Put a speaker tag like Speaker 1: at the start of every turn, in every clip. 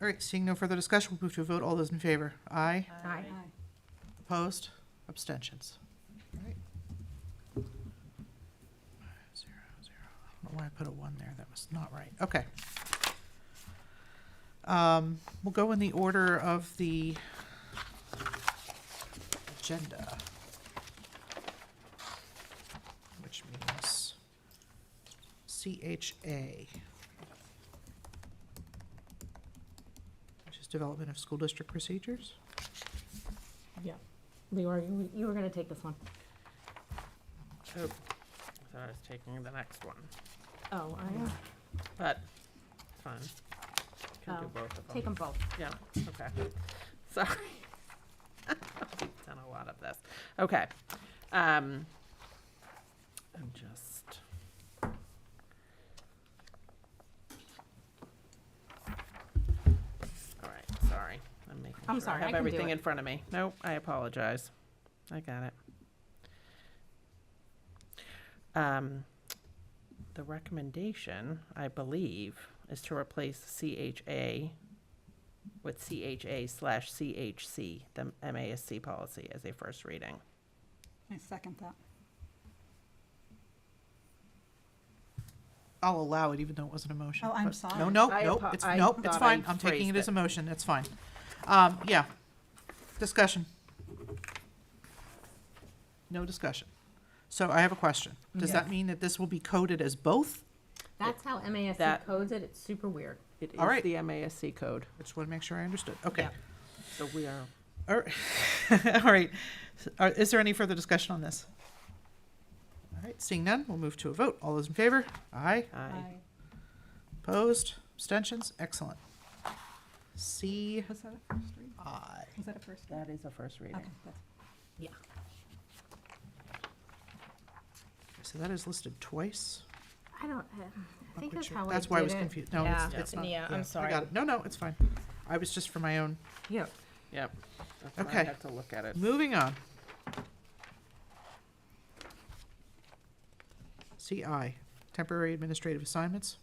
Speaker 1: All right, seeing no further discussion, we'll move to a vote. All those in favor? Aye.
Speaker 2: Aye.
Speaker 1: Opposed? Abstentions? All right. Zero, zero. I don't know why I put a one there. That was not right. Okay. Um, We'll go in the order of the agenda. Which means CHA. Which is Development of School District Procedures.
Speaker 2: Yeah. Leora, you, you were gonna take this one.
Speaker 3: Oh, I thought I was taking the next one,
Speaker 2: Oh, I,
Speaker 3: but it's fine. Can
Speaker 2: Oh,
Speaker 3: do both of them.
Speaker 2: take them both.
Speaker 3: Yeah, okay. Sorry. We've done a lot of this. Okay. Um, I'm just. All right, sorry. I'm making
Speaker 2: I'm
Speaker 3: sure I
Speaker 2: Oh, sorry, I
Speaker 3: have
Speaker 2: can do
Speaker 3: everything
Speaker 2: it.
Speaker 3: in front of me. Nope, I apologize. I got it. Um, the recommendation, I believe, is to replace CHA with CHA slash CHC, the MASC policy as a first reading.
Speaker 4: I second that.
Speaker 1: I'll allow it even though it wasn't a motion.
Speaker 4: Oh, I'm
Speaker 1: but-
Speaker 4: sorry.
Speaker 1: No, no,
Speaker 3: I
Speaker 1: no,
Speaker 3: apo-
Speaker 1: it's,
Speaker 3: I
Speaker 1: no, it's
Speaker 3: thought
Speaker 1: fine.
Speaker 3: I
Speaker 1: I'm taking it
Speaker 3: phrased
Speaker 1: as a
Speaker 3: it.
Speaker 1: motion, it's fine. Um, yeah. Discussion. No discussion. So I have a question. Does that mean that this will be coded as both?
Speaker 2: That's how MASC
Speaker 3: That-
Speaker 2: codes it. It's super weird.
Speaker 3: It is
Speaker 1: All right.
Speaker 3: the MASC code,
Speaker 1: I just want to make sure I understood. Okay.
Speaker 2: Yeah.
Speaker 3: so we are.
Speaker 1: All right. All right. S- are- Is there any further discussion on this? All right, seeing none, we'll move to a vote. All those in favor? Aye.
Speaker 3: I
Speaker 1: Opposed? Abstentions? Excellent. C
Speaker 4: Was that a first read?
Speaker 1: I.
Speaker 4: Was that a first read?
Speaker 3: That is a first reading.
Speaker 4: Okay, that's-
Speaker 2: Yeah.
Speaker 1: So that is listed twice.
Speaker 2: I don't, I- I think that's
Speaker 1: Which-
Speaker 2: how I did it.
Speaker 1: That's why I was confused. No, it's,
Speaker 2: Yeah.
Speaker 1: it's not.
Speaker 2: Yeah, I'm
Speaker 1: I
Speaker 2: sorry.
Speaker 1: got it. No, no, it's fine. I was just for my own.
Speaker 2: Yeah.
Speaker 3: Yep. That's why I
Speaker 1: Okay.
Speaker 3: have to look at it.
Speaker 1: Moving on. CI, temporary administrative assignments.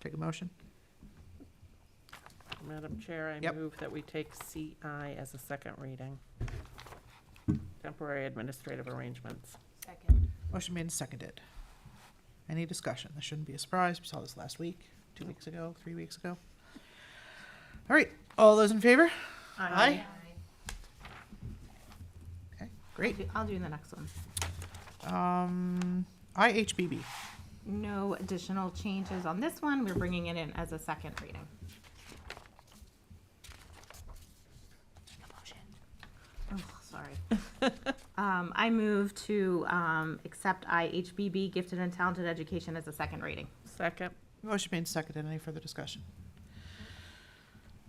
Speaker 1: Take a motion.
Speaker 3: Madam Chair, I
Speaker 1: Yep.
Speaker 3: move that we take CI as a second reading. Temporary administrative arrangements.
Speaker 2: Second.
Speaker 1: Motion made and seconded. Any discussion? This shouldn't be a surprise. We saw this last week, two weeks ago, three weeks ago. All right, all those in favor? Aye. Okay, great.
Speaker 2: I'll do the next one.
Speaker 1: Um, IHBB.
Speaker 2: No additional changes on this one. We're bringing it in as a second reading. Oh, sorry. Um, I move to, um, accept IHBB Gifted and Talented Education as a second reading.
Speaker 3: Second,
Speaker 1: Motion made and seconded. Any further discussion?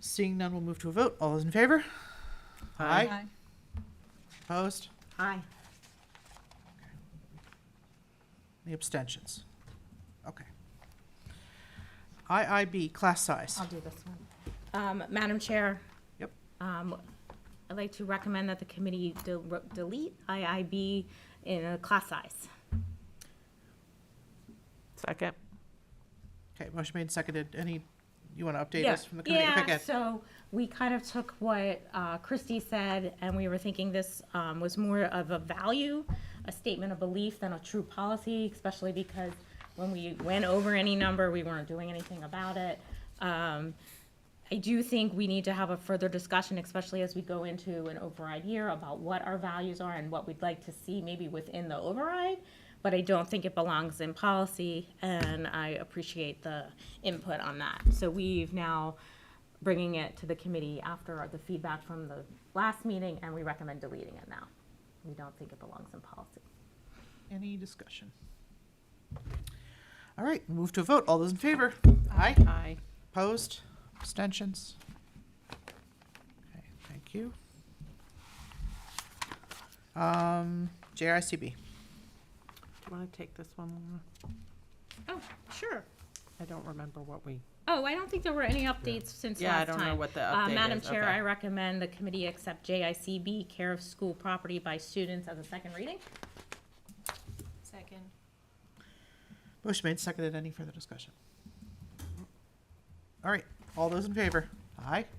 Speaker 1: Seeing none, we'll move to a vote. All those in favor?
Speaker 3: Aye.
Speaker 4: Aye.
Speaker 1: Opposed?
Speaker 2: Aye.
Speaker 1: Any abstentions? Okay. IIB, class size.
Speaker 2: I'll do this one. Um, Madam Chair.
Speaker 1: Yep.
Speaker 2: Um, I'd like to recommend that the committee del- delete IIB in a class size.
Speaker 3: second.
Speaker 1: Okay, motion made and seconded. Any, you want to update
Speaker 2: Yeah.
Speaker 1: us from the committee? Okay,
Speaker 2: Yeah,
Speaker 1: good.
Speaker 2: so we kind of took what uh, Christie said, and we were thinking this um, was more of a value, a statement of belief than a true policy, especially because when we went over any number, we weren't doing anything about it. Um, I do think we need to have a further discussion, especially as we go into an override year, about what our values are and what we'd like to see maybe within the override. But I don't think it belongs in policy, and I appreciate the input on that. So we've now bringing it to the committee after the feedback from the last meeting, and we recommend deleting it now. We don't think it belongs in policy.
Speaker 1: Any discussion? All right, move to a vote. All those in favor? Aye.
Speaker 3: Aye.
Speaker 1: Opposed? Abstentions? Okay, thank you. Um, JICB.
Speaker 3: Do you want to take this one, Laura?
Speaker 2: Oh, sure.
Speaker 3: I don't remember what we,
Speaker 2: Oh, I don't think there were any updates since last time.
Speaker 3: Yeah, I don't know what the
Speaker 2: Uh,
Speaker 3: update
Speaker 2: Madam
Speaker 3: is,
Speaker 2: Chair,
Speaker 3: okay.
Speaker 2: I recommend the committee accept JICB, care of school property by students as a second reading.
Speaker 5: Second.
Speaker 1: Motion made, seconded. Any further discussion? All right, All those in favor? Aye.